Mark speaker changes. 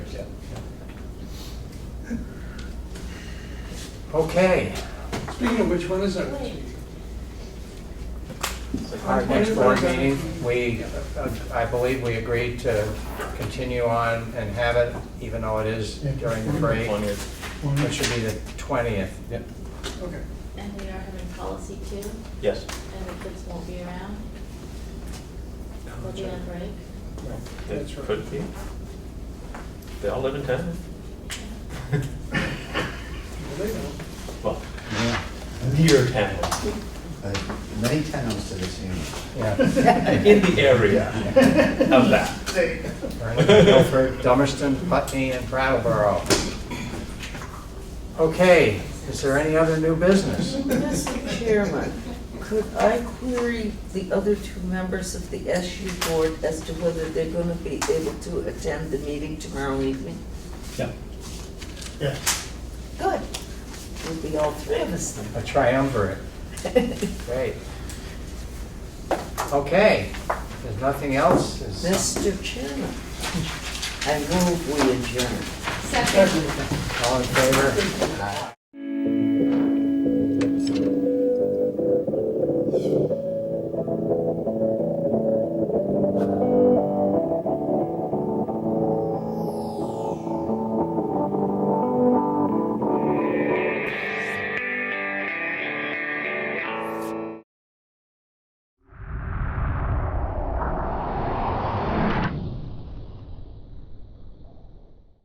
Speaker 1: Okay.
Speaker 2: Speaking of which, when is that?
Speaker 1: Our next board meeting, we, I believe we agreed to continue on and have it, even though it is during the break. It should be the 20th.
Speaker 2: Okay.
Speaker 3: And we are having policy too,
Speaker 4: Yes.
Speaker 3: and the kids won't be around. They'll be on break.
Speaker 4: They
Speaker 2: That's right.
Speaker 4: Could be. They all live in town.
Speaker 2: Well, they know.
Speaker 4: Well,
Speaker 5: Yeah,
Speaker 4: near town,
Speaker 5: uh, Many towns to the same.
Speaker 1: Yeah.
Speaker 4: in the area of that.
Speaker 1: We're in Guilford, Dummerston, Putney, and Brattleboro. Okay, is there any other new business?
Speaker 6: Mr. Chairman, could I query the other two members of the SU board as to whether they're going to be able to attend the meeting tomorrow evening?
Speaker 4: Yeah.
Speaker 6: Good. We'll be all three of us
Speaker 1: A triumvirate.
Speaker 6: then.
Speaker 1: Great. Okay, there's nothing else? Is-
Speaker 6: Mr. Chairman, I move we adjourn.
Speaker 3: Second.
Speaker 1: All in favor?